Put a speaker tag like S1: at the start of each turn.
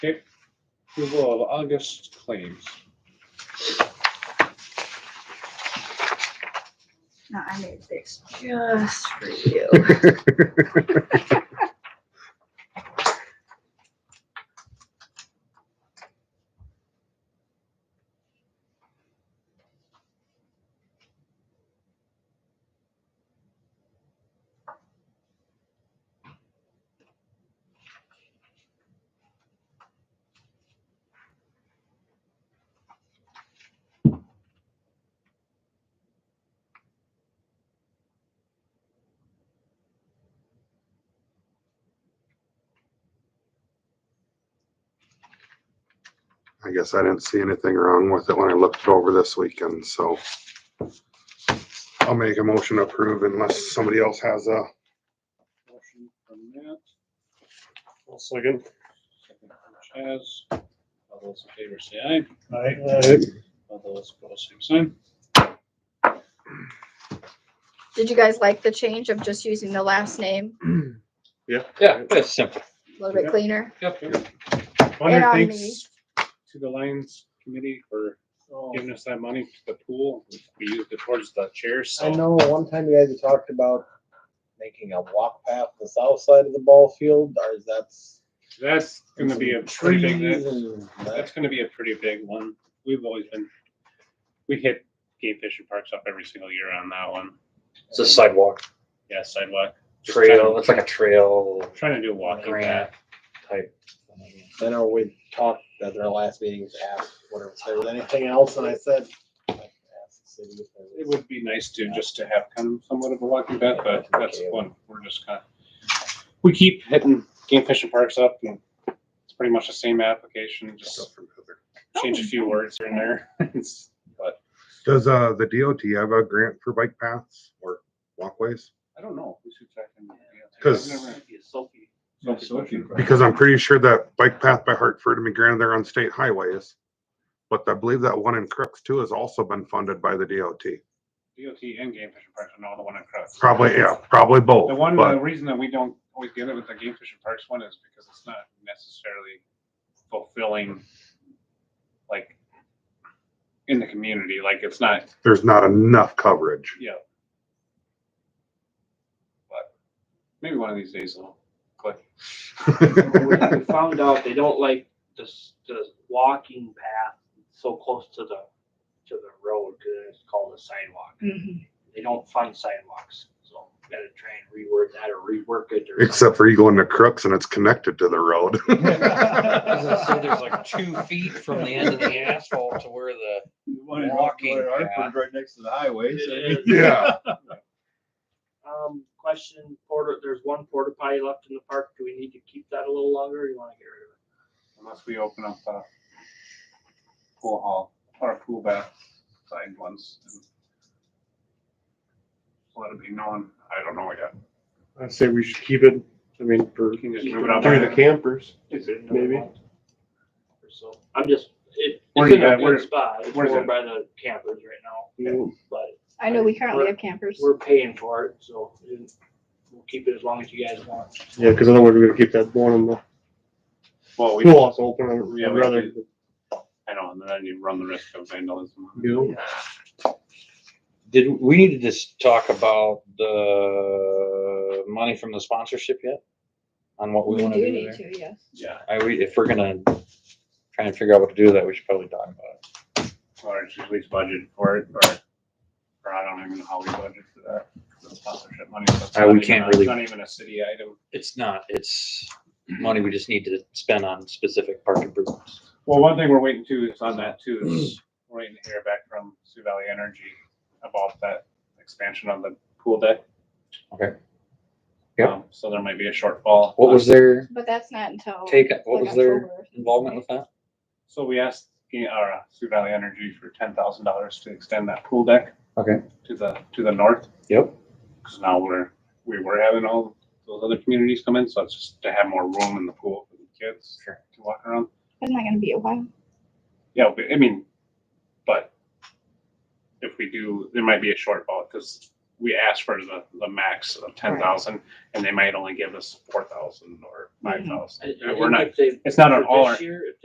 S1: Okay, approval of August claims.
S2: No, I made this just for you.
S3: I guess I didn't see anything wrong with it when I looked it over this weekend, so. I'll make a motion to approve unless somebody else has a,
S1: Motion from Matt,
S4: One second.
S1: second from Chaz. All those in favor say aye.
S4: Aye.
S1: All those opposed, same sign.
S2: Did you guys like the change of just using the last name?
S5: Yeah, that's simple.
S2: A little bit
S1: Yeah.
S2: cleaner.
S1: Yep.
S2: And
S4: Hunter
S2: on me.
S4: thinks,
S1: To the Lions Committee for giving us that money to the pool. We used it towards the chairs,
S6: I
S1: so.
S6: know one time you guys had talked about making a walk path the south side of the ball field, or is that?
S1: That's gonna be a pretty big,
S6: Trees
S1: that-
S6: and that-
S1: that's gonna be a pretty big one. We've always been, we hit game fishing parks up every single year on that one.
S5: It's a sidewalk
S1: Yeah, sidewalk. Just
S5: trail.
S1: trying-
S5: It's like a trail
S1: Trying to do a walking
S5: Grant.
S1: path.
S5: type.
S6: I know we talked at their last meetings, asked whatever, if there was anything else, and I said. like, ask the city if there
S1: It
S6: was-
S1: would be nice to, just to have kind of somewhat of a walking path, but that's one, we're just kind of. We keep hitting game fishing parks up and it's pretty much the same application, just change a
S3: Oh.
S1: few words here and there. It's- But
S3: does, uh, the DOT have a grant for bike paths or walkways?
S1: I don't know, we should check in. with the DOT.
S3: 'Cause-
S1: I've never-
S3: Because I'm pretty sure that bike path by Hartford, I mean, granted, they're on state highways. But I believe that one in Crooks too has also been funded by the DOT.
S1: DOT and game fishing parks are not the one in Crooks.
S3: Probably, yeah, probably both.
S1: The one,
S3: but-
S1: the reason that we don't always get it with the game fishing parks one is because it's not necessarily fulfilling, like, in the community, like, it's not
S3: there's not enough coverage.
S1: Yeah. But maybe one of these days it'll click.
S7: We we found out they don't like this, the walking path so close to the, to the road, cause it's called a sidewalk. They don't fund sidewalks, so we gotta try and reword that or rework it or.
S3: Except for you go into Crooks and it's connected to the road.
S5: So there's like two feet from the end of the asphalt to where the walking path.
S8: Right next to the highway.
S7: It is.
S3: Yeah,
S7: Um, question, porta, there's one porta potty left in the park, do we need to keep that a little longer, or you wanna get rid of it?
S1: Unless we open up a pool hall or a pool bath side ones. and Let it be known. I don't know yet.
S4: I say we should keep it, I mean, for,
S1: We can just move it up.
S4: through the campers.
S7: Is it another
S4: Maybe.
S7: month Or so, I'm just, it,
S1: Where
S7: it's
S1: you
S7: in
S1: at?
S7: a
S1: Where-
S7: good spot, it's
S1: where's
S7: more
S1: it? Mm.
S7: by the campers right now, but.
S2: I know we currently have campers.
S7: we're paying for it, so it- we'll keep it as long as you guys want.
S4: Yeah, because otherwise we're gonna keep that one in the
S1: Well, we,
S4: pool house open.
S1: Yeah,
S4: I'd
S1: we
S4: rather.
S1: could- I know, and then you run the risk of vandalism.
S4: do.
S5: Did, we need to just talk about the money from the sponsorship yet? On what we wanna do there?
S2: to, yes.
S1: Yeah.
S5: I, we, if we're gonna try and figure out what to do with that, we should probably talk about it.
S1: Or it's at least budgeted for it, or, or I don't even know how we budget for that. the Sponsorship money. so it's
S5: Uh, we
S1: not even
S5: can't
S1: a-
S5: really-
S1: It's not even a city item.
S5: It's not, it's money we just need to spend on specific park improvements.
S1: Well, one thing we're waiting to is on that too, is we're waiting to hear back from Sioux Valley Energy about that expansion on the pool deck.
S5: Okay. Yep.
S1: Um, So there might be a shortfall.
S5: What was their
S2: But that's not until.
S5: take, what
S2: Oh, like
S5: was their
S2: October.
S5: involvement with that?
S1: So we asked, the- our uh, Sioux Valley Energy for ten thousand dollars to extend that pool deck.
S5: Okay.
S1: To the, to the north,
S5: Yep.
S1: because now we're, we were having all those other communities come in, so it's just to have more room in the pool for the kids
S5: Sure.
S1: to walk around.
S2: Isn't that gonna be a while?
S1: Yeah, but, I mean, but if we do, there might be a shortfall because we asked for the, the max of ten thousand, and they might only give us four thousand or five thousand.
S7: I- I
S1: We're
S7: think
S1: not,
S7: if they-
S1: it's not an
S7: for
S1: all or
S7: This year, if